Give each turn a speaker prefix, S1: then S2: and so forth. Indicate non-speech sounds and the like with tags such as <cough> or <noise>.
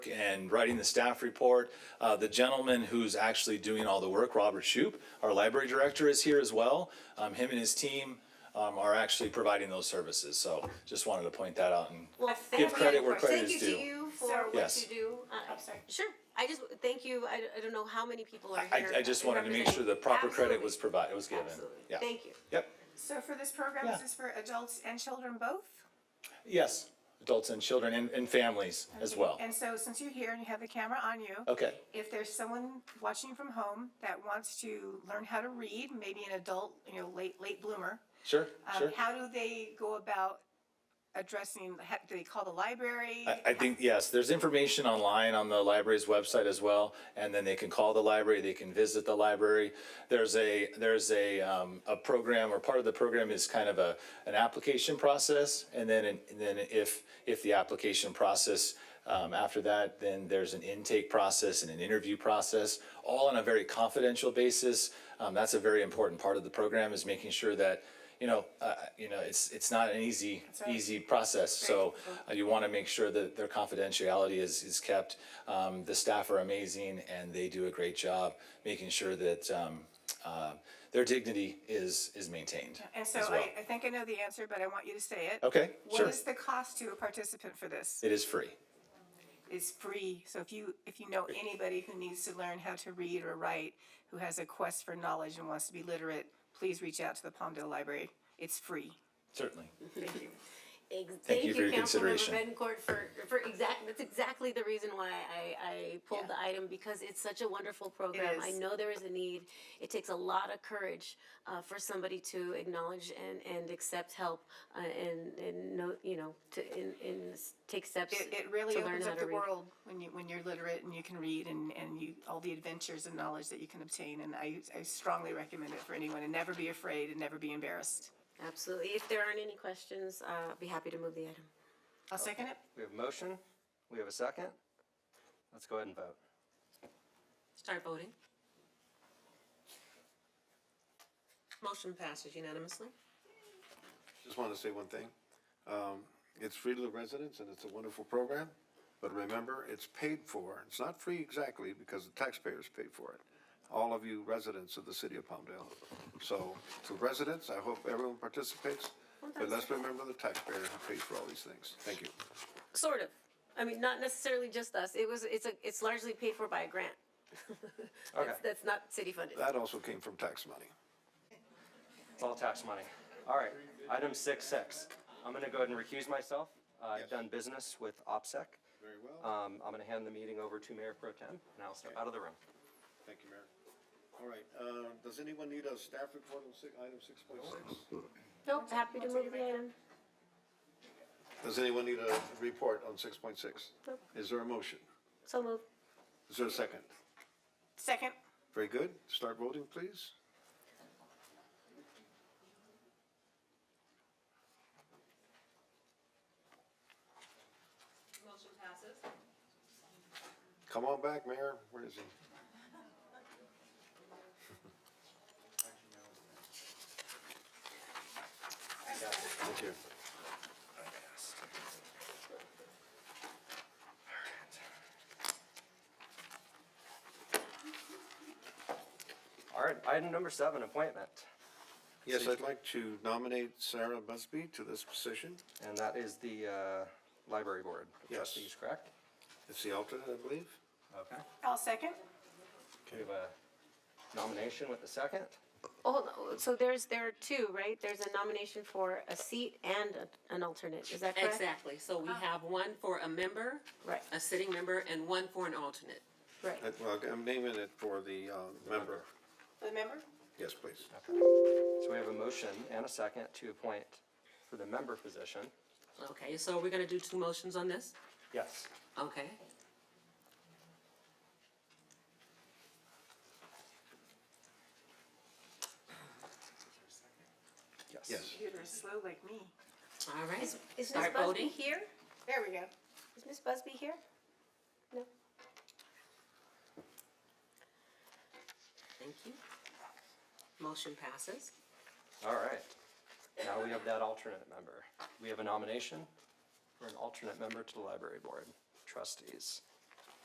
S1: and writing the staff report. Uh, the gentleman who's actually doing all the work, Robert Shoup, our library director, is here as well. Um, him and his team um, are actually providing those services. So just wanted to point that out and
S2: Well,
S1: give
S2: thank
S1: credit
S2: you.
S1: where credit
S2: Thank
S1: is
S2: you
S1: due.
S2: to you for what
S1: Yes.
S2: you do. Uh, I'm sorry.
S3: Sure, I just, thank you, I, I don't know how many people are
S1: I,
S3: here.
S1: I just wanted to make sure the proper credit was provided, was given.
S2: Absolutely.
S1: Yeah.
S3: Thank you.
S1: Yep.
S4: So for this program,
S1: Yeah.
S4: is this for adults and children both?
S1: Yes. Adults and children and, and families as well.
S4: And so since you're here and you have the camera on you,
S1: Okay.
S4: if there's someone watching from home that wants to learn how to read, maybe an adult, you know, late, late bloomer,
S1: Sure.
S4: um,
S1: Sure.
S4: how do they go about addressing, ha- do they call the library?
S1: I, I think, yes, there's information online on the library's website as well, and then they can call the library, they can visit the library. There's a, there's a, um, a program, or part of the program is kind of a, an application process, and then, and then if, if the application process, um, after that, then there's an intake process and an interview process, all on a very confidential basis. Um, that's a very important part of the program, is making sure that, you know, uh, you know, it's, it's not an easy, easy process, so uh, you want to make sure that their confidentiality is, is kept. Um, the staff are amazing and they do a great job making sure that, um, uh, their dignity is, is maintained
S4: And so
S1: as well.
S4: I, I think I know the answer, but I want you to say it.
S1: Okay, sure.
S4: What is the cost to a participant for this?
S1: It is free.
S4: It's free. So if you, if you know anybody who needs to learn how to read or write, who has a quest for knowledge and wants to be literate, please reach out to the Palmdale Library. It's free.
S1: Certainly.
S3: Ex-
S1: Thank
S3: Thank
S1: you
S3: you,
S1: for your
S3: Councilmember
S1: consideration.
S3: Bencourt, for, for exact, that's exactly the reason why I, I pulled the item, because it's such a wonderful program. I
S4: is.
S3: know there is a need. It takes a lot of courage, uh, for somebody to acknowledge and, and accept help, uh, and, and know, you know, to, and, and s- take steps
S4: It, it really
S3: to learn
S4: opens
S3: how
S4: up
S3: to
S4: the
S3: read.
S4: world when you, when you're literate and you can read and, and you, all the adventures and knowledge that you can obtain. And I, I strongly recommend it for anyone and never be afraid and never be embarrassed.
S3: Absolutely. If there aren't any questions, uh, I'd be happy to move the item.
S4: I'll second it.
S5: We have a motion. We have a second. Let's go ahead and vote.
S6: Start voting. Motion passes unanimously.
S7: Just wanted to say one thing. Um, it's free to the residents and it's a wonderful program, but remember, it's paid for. It's not free exactly because the taxpayers paid for it. All of you residents of the city of Palmdale. So to residents, I hope everyone participates, but let's remember the taxpayer who pays for all these things. Thank you.
S3: Sort of. I mean, not necessarily just us. It was, it's a, it's largely paid for by a grant. <laughs>
S5: Okay,
S3: That's- That's not city funded.
S7: That also came from tax money.
S5: it's all tax money. All right, item six six. I'm gonna go ahead and recuse myself. Uh, I've done business with OPSEC.
S7: Very well.
S5: Um, I'm gonna hand the meeting over to Mayor Pro Tem, and I'll step out of the room.
S7: Thank you, Mayor. All right, uh, does anyone need a staff report on six, item six point six?
S3: Nope, happy to move the um, item.
S7: Does anyone need a report on six point six? Is there a motion?
S3: So move.
S7: Is there a second?
S4: Second.
S7: Very good. Start voting, please. Come on back, Mayor. Where is he? Thank you.
S5: All right, item number seven, appointment.
S7: Yes, I'd like to nominate Sarah Busby to this position.
S5: And that is the, uh, library board. of
S7: Yes.
S5: Trustees, correct?
S7: It's the alternate, I believe.
S5: Okay.
S4: I'll second.
S5: We have a nomination with a second.
S3: Oh, Hold, on, so there's, there are two, right? There's a nomination for a seat and a- an alternate, is that correct?
S6: Exactly. So we have one for a member,
S3: Right,
S6: a sitting member, and one for an alternate.
S3: right.
S7: Uh, Well, I'm naming it for the uh, member.
S4: The member?
S7: Yes, please.
S5: So we have a motion and a second to appoint for the member position.
S6: Okay, so we're gonna do two motions on this?
S5: Yes.
S6: Okay.
S5: Yes.
S7: Yes.
S4: Computer is slow like me.
S6: All right.
S3: Is Ms.
S6: Start
S3: Busby
S6: voting.
S3: here?
S4: There we go.
S3: Is Ms. Busby here? No.
S6: Thank you. Motion passes.
S5: All right. Now we have that alternate member. We have a nomination for an alternate member to the library board trustees.